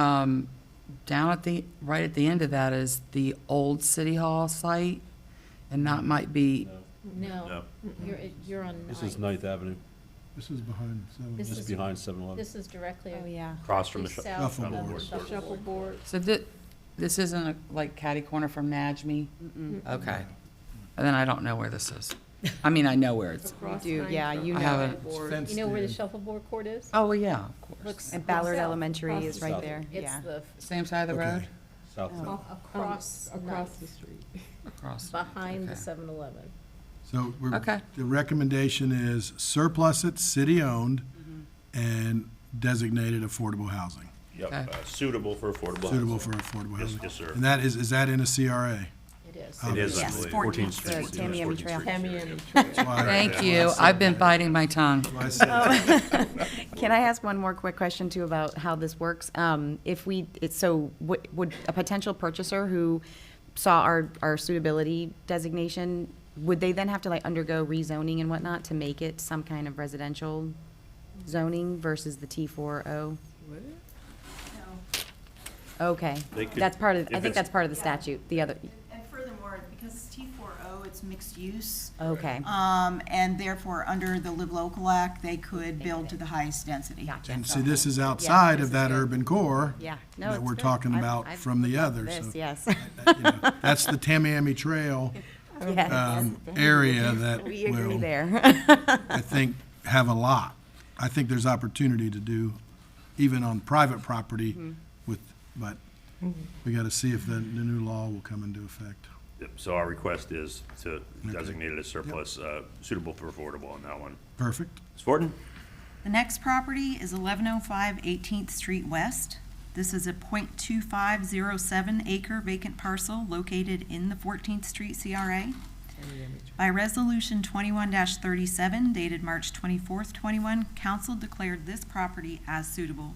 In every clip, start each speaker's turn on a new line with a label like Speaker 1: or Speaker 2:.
Speaker 1: Um, down at the, right at the end of that is the old city hall site, and that might be,
Speaker 2: No,
Speaker 3: No.
Speaker 2: you're, you're on
Speaker 3: This is
Speaker 2: nine.
Speaker 3: Ninth Avenue,
Speaker 4: This is behind seven.
Speaker 2: This
Speaker 3: this
Speaker 2: is-
Speaker 3: is behind 7-Eleven.
Speaker 2: This is directly
Speaker 5: Oh, yeah.
Speaker 6: Across from
Speaker 2: due
Speaker 6: the shop.
Speaker 2: south of the
Speaker 4: Shuffleboard.
Speaker 2: shuffleboard.
Speaker 1: so thi- this isn't a, like catty corner from Najmi? Okay. And then I don't know where this is. I mean, I know where it's,
Speaker 5: We do, yeah, you
Speaker 1: I
Speaker 5: know
Speaker 1: haven't-
Speaker 5: it.
Speaker 4: It's
Speaker 2: You know where the
Speaker 4: fenced in.
Speaker 2: shuffleboard court is?
Speaker 1: oh, well, yeah, of course.
Speaker 2: Looks-
Speaker 5: And Ballard
Speaker 2: south,
Speaker 5: Elementary
Speaker 2: across
Speaker 5: is
Speaker 2: the
Speaker 5: right
Speaker 2: street.
Speaker 5: there,
Speaker 2: It's
Speaker 5: yeah.
Speaker 2: the
Speaker 1: Same side of the road?
Speaker 4: Okay.
Speaker 3: South
Speaker 5: Oh.
Speaker 2: across, across,
Speaker 7: street.
Speaker 1: Across.
Speaker 2: behind the
Speaker 1: Okay.
Speaker 2: 7-Eleven.
Speaker 4: So we're,
Speaker 1: Okay.
Speaker 4: the recommendation is surplus it, city-owned, and designated affordable housing,
Speaker 6: Yep,
Speaker 1: Okay.
Speaker 6: uh, suitable for affordable housing.
Speaker 4: suitable for affordable
Speaker 6: Yes,
Speaker 4: housing.
Speaker 6: yes, sir.
Speaker 4: And that is, is that in a CRA?
Speaker 2: It is.
Speaker 6: It is, I
Speaker 5: Yes,
Speaker 6: believe. 14th
Speaker 5: 14th, so
Speaker 6: Street.
Speaker 5: Tamiami
Speaker 6: 14th
Speaker 5: Trail.
Speaker 6: Street, yeah.
Speaker 4: That's why I-
Speaker 1: Thank
Speaker 4: that's
Speaker 1: you,
Speaker 4: why I
Speaker 1: I've been
Speaker 4: said that.
Speaker 1: biting my tongue.
Speaker 4: Why I said that.
Speaker 5: Can I ask one more quick question too about how this works? Um, If we, it's so, would would a potential purchaser who saw our, our suitability designation, would they then have to like undergo rezoning and whatnot to make it some kind of residential zoning versus the T40? Okay,
Speaker 6: They could-
Speaker 5: that's part of, I
Speaker 6: if
Speaker 5: think
Speaker 6: it's-
Speaker 5: that's part of the statute, the other,
Speaker 8: And furthermore, because it's T4O, it's mixed use,
Speaker 5: okay,
Speaker 8: um, and therefore, under the Live Local Act, they could build to the highest density.
Speaker 5: gotcha.
Speaker 4: And see, this is outside of that urban core.
Speaker 5: Yeah, no,
Speaker 4: That
Speaker 5: it's
Speaker 4: we're
Speaker 5: good.
Speaker 4: talking
Speaker 5: I've-
Speaker 4: about
Speaker 5: I've
Speaker 4: from the other, so.
Speaker 5: This, yes,
Speaker 4: that, you know, That's the Tamiami Trail,
Speaker 5: yes,
Speaker 4: um, area that
Speaker 5: we agree
Speaker 4: will,
Speaker 5: there.
Speaker 4: I think, have a lot. I think there's opportunity to do, even on private property with, but we gotta see if the, the new law will come into effect.
Speaker 6: Yep, So our request is to designate it as surplus, uh, suitable for affordable on that one.
Speaker 4: Perfect.
Speaker 6: Ms. Fortin?
Speaker 8: The next property is 1105 18th Street West. This is a .2507 acre vacant parcel located in the 14th Street CRA. By Resolution 21-37 dated March 24th, 21, council declared this property as suitable,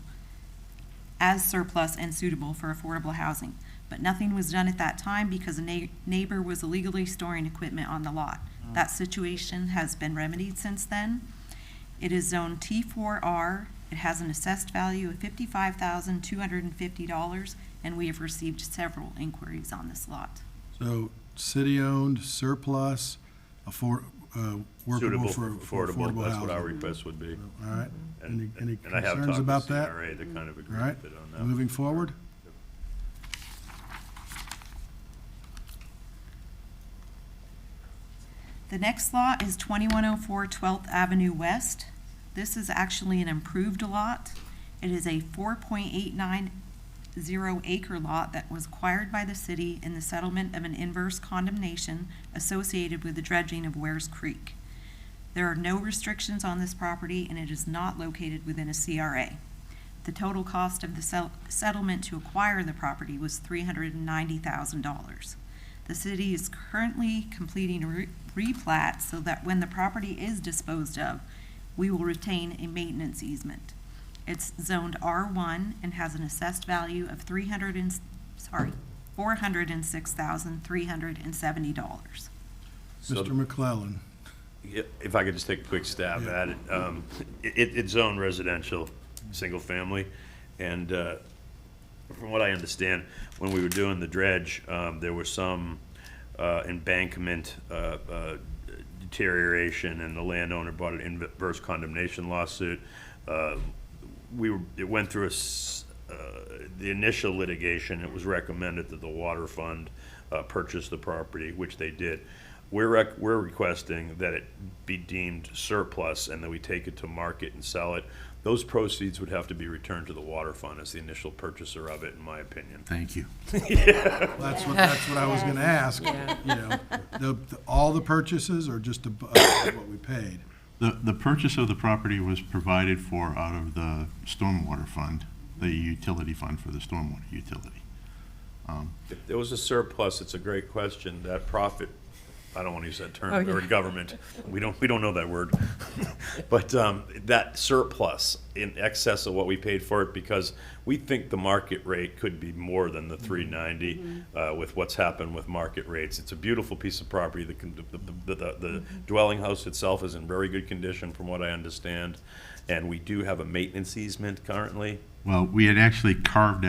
Speaker 8: as surplus and suitable for affordable housing. But nothing was done at that time because a neigh- neighbor was illegally storing equipment on the lot. That situation has been remedied since then. It is zone T4R. It has an assessed value of $55,250, and we have received several inquiries on this lot.
Speaker 4: So, city-owned surplus, afford, uh, workable
Speaker 6: Suitable
Speaker 4: for for
Speaker 6: Affordable,
Speaker 4: affordable
Speaker 6: that's what our
Speaker 4: housing.
Speaker 6: request would be.
Speaker 4: All right, any,
Speaker 6: And
Speaker 4: any
Speaker 6: and I have
Speaker 4: concerns
Speaker 6: talked with
Speaker 4: about that?
Speaker 6: CRA, they kind of
Speaker 4: All
Speaker 6: agree
Speaker 4: right,
Speaker 6: with it on that.
Speaker 4: moving forward.
Speaker 8: The next lot is 2104 12th Avenue West. This is actually an improved lot. It is a 4.890 acre lot that was acquired by the city in the settlement of an inverse condemnation associated with the dredging of Wares Creek. There are no restrictions on this property, and it is not located within a CRA. The total cost of the sell- settlement to acquire the property was $390,000. The city is currently completing a re- replat so that when the property is disposed of, we will retain a maintenance easement. It's zoned R1 and has an assessed value of 300 and, s- sorry, $406,370.
Speaker 6: So-
Speaker 4: Mr. McClellan,
Speaker 6: Yeah, If I could just take a quick stab at it, um, it, it's zone residential, single family, and, uh, from what I understand, when we were doing the dredge, um, there was some, uh, embankment, uh, uh, deterioration, and the landowner brought an inverse condemnation lawsuit. Uh, we were, it went through a, s- uh, the initial litigation, it was recommended that the water fund uh, purchase the property, which they did. We're, rec- we're requesting that it be deemed surplus and that we take it to market and sell it. Those proceeds would have to be returned to the water fund as the initial purchaser of it, in my opinion.
Speaker 4: Thank you. That's what, that's what I was gonna ask, you know, the, the- all the purchases or just ab- above what we paid?
Speaker 9: The, the purchase of the property was provided for out of the stormwater fund, the utility fund for the stormwater utility.
Speaker 6: If There was a surplus, it's a great question, that profit, I don't want to use that term, we're in government, we don't, we don't know that word. But um, that surplus in excess of what we paid for it, because we think the market rate could be more than the three ninety uh, with what's happened with market rates. It's a beautiful piece of property, the, con- the- the, the- the dwelling house itself is in very good condition from what I understand. And we do have a maintenance easement currently,
Speaker 9: Well, we had actually carved